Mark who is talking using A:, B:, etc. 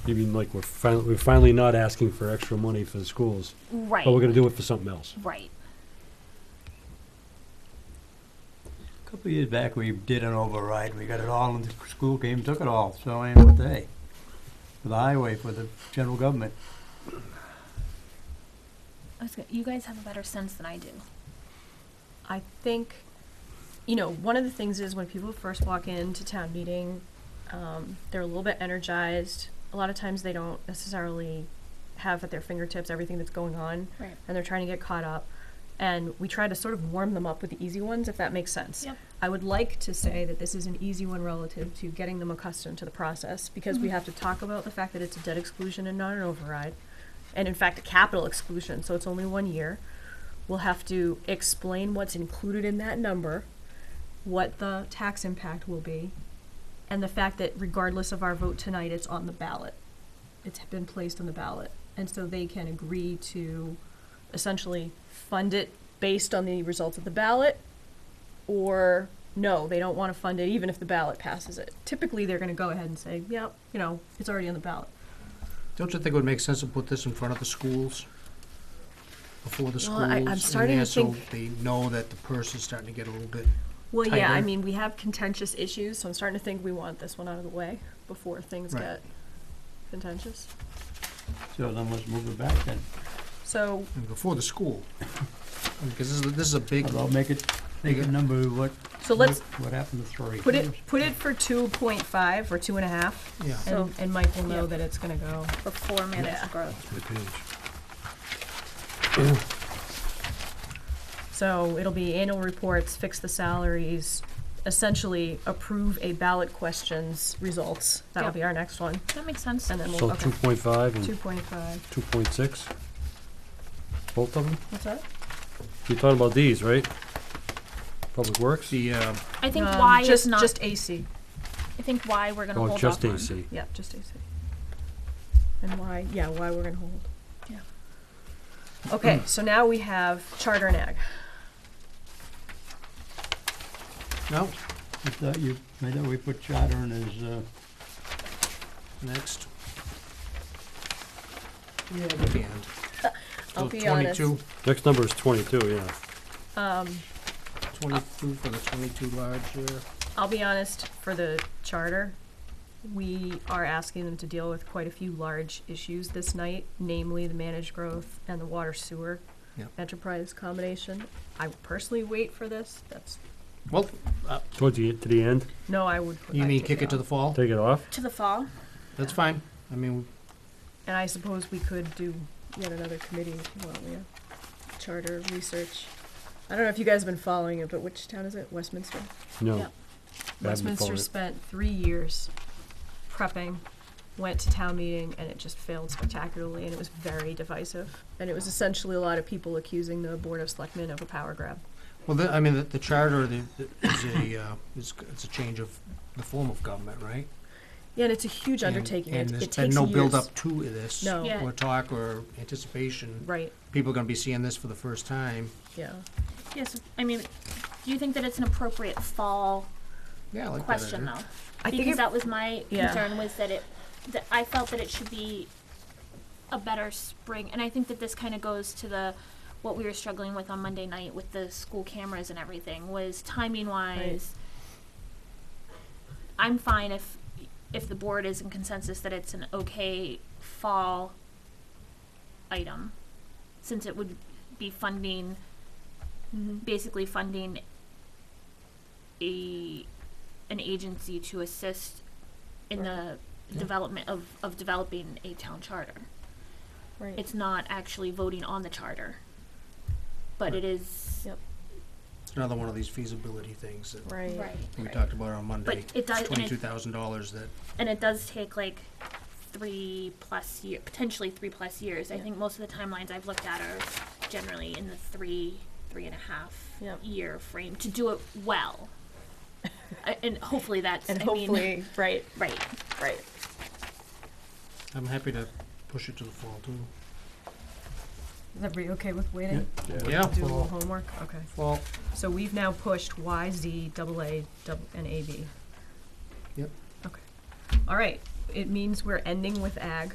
A: Even like we're finally, we're finally not asking for extra money for the schools,
B: Right.
A: but we're gonna do it for something else.
B: Right.
C: A Couple of years back, we did an override, we got it all, and the school came, took it all, so I am what they, for the highway, for the general government.
B: I was gonna, you guys have a better sense than I do.
D: I think, you know, one of the things is when people first walk into town meeting, um, they're a little bit energized. A lot of times they don't necessarily have at their fingertips everything that's going on,
B: Right.
D: and they're trying to get caught up. And we try to sort of warm them up with the easy ones, if that makes sense.
B: Yep.
D: I would like to say that this is an easy one relative to getting them accustomed to the process because
B: Mm-hmm.
D: we have to talk about the fact that it's a debt exclusion and not an override, and in fact, a capital exclusion, so it's only one year. We'll have to explain what's included in that number, what the tax impact will be, and the fact that regardless of our vote tonight, it's on the ballot. It's been placed on the ballot. And so they can agree to essentially fund it based on the results of the ballot or no, they don't want to fund it even if the ballot passes it. Typically, they're going to go ahead and say, yep, you know, it's already on the ballot.
E: Don't you think it would make sense to put this in front of the schools? Before the schools?
D: Well, I- I'm
E: in
D: starting
E: there
D: to
E: so
D: think-
E: They know that the purse is starting to get a little bit,
D: Well, yeah, I
E: Tighter.
D: mean, we have contentious issues, so I'm starting to think we want this one out of the way before things
E: Right.
D: get contentious.
C: So then let's move it back then.
D: So,
E: and before the school. Because this is, this is a big,
C: How about make it, make it number what,
D: so
C: what
D: let's
C: what happened to three?
D: put it put it for two point five or two and a half,
E: yeah.
B: So-
D: and, and Mike will know
B: Yeah.
D: that it's going to go.
B: For four minutes
D: Yeah.
B: of growth.
D: So it'll be annual reports, fix the salaries, essentially approve a ballot question's results. That'll
B: Yep.
D: be our next one.
B: That makes sense.
D: And then we'll,
A: So
D: okay,
A: two point five
E: Hmm.
D: two
A: and
D: point five.
A: two point six, both of them?
D: What's that?
A: You're talking about these, right? Public Works?
E: The, uh,
B: I think
D: Um,
B: why
D: just,
B: is not.
D: Just AC,
B: I think why we're gonna
A: Oh,
B: hold
A: just
B: off on-
A: AC.
D: yeah, just AC. And why, yeah, why we're gonna hold.
B: Yeah.
E: Hmm.
D: Okay, so now we have charter and ag.
E: no,
C: I thought you, I thought we put charter in as, uh,
E: next. Yeah, at the end.
D: I'll
E: So
D: be honest.
E: Oh, Twenty-two,
A: Next number is twenty-two, yeah.
D: Um,
E: twenty-two for the twenty-two large, uh,
D: I'll be honest, for the charter, we are asking them to deal with quite a few large issues this night, namely the managed growth and the water sewer
E: Yep.
D: enterprise combination. I would personally wait for this, that's,
E: well,
A: Towards the, e-, to the end,
D: no, I would.
E: you
D: I'd
E: mean
D: take
E: kick it to the
D: off.
B: Oh.
E: fall?
A: take it off?
B: To the fall.
E: That's fine. I mean,
D: And I suppose we could do yet another committee if you want, yeah, charter research. I don't know if you guys have been following it, but which town is it, Westminster?
A: No.
B: Yeah.
A: been
D: Westminster
A: following it.
D: spent three years prepping, went to town meeting, and it just failed spectacularly, and it was very divisive. And it was essentially a lot of people accusing the Board of Selectmen of a power grab.
E: well, the, I mean, the, the charter the- the- is a, uh, is, it's a change of the form of government, right?
D: Yeah, and it's a huge
E: And-
D: undertaking.
E: And
D: it,
E: there's
D: it
E: been
D: takes
E: no
D: years.
E: build-up to this.
D: No,
B: Yeah.
E: Or talk or anticipation.
D: right,
E: People are gonna be seeing this for the first time.
D: yeah.
B: Yes. I mean, do you think that it's an appropriate fall
E: Yeah, I like that
B: question
E: idea.
B: though?
D: I think
B: because
D: it,
B: that was my
D: Yeah.
B: concern was that it that I felt that it should be a better spring and I think that this kind of goes to the what we were struggling with on Monday night with the school cameras and everything was timing wise I'm fine if if the board is in consensus that it's an okay fall item since it would be funding
D: Mhm.
B: basically funding a an agency to assist in the development of, of developing a town charter.
D: right.
B: It's not actually voting on the charter. But it is
D: Yep.
E: It's another one of these feasibility things that
D: right.
B: right.
E: we talked about on Monday.
B: it does- and it-
E: Twenty-two thousand dollars that,
B: And it does take like three plus year potentially three plus years. I
D: Yeah.
B: think most of the timelines I've looked at are generally in the three, three and a half
D: Yep.
B: year frame to do it well. I, and hopefully that's
D: And
B: I mean,
D: hopefully, right,
B: right.
D: right.
E: I'm happy to push it to the fall too.
D: Is everybody okay with waiting?
E: Yeah,
D: Do a little
E: fall,
D: homework. Okay.
E: fall,
D: So we've now pushed Y, Z, double A, double, and A, B.
E: Yep.
D: Okay. All right, it means we're ending with ag.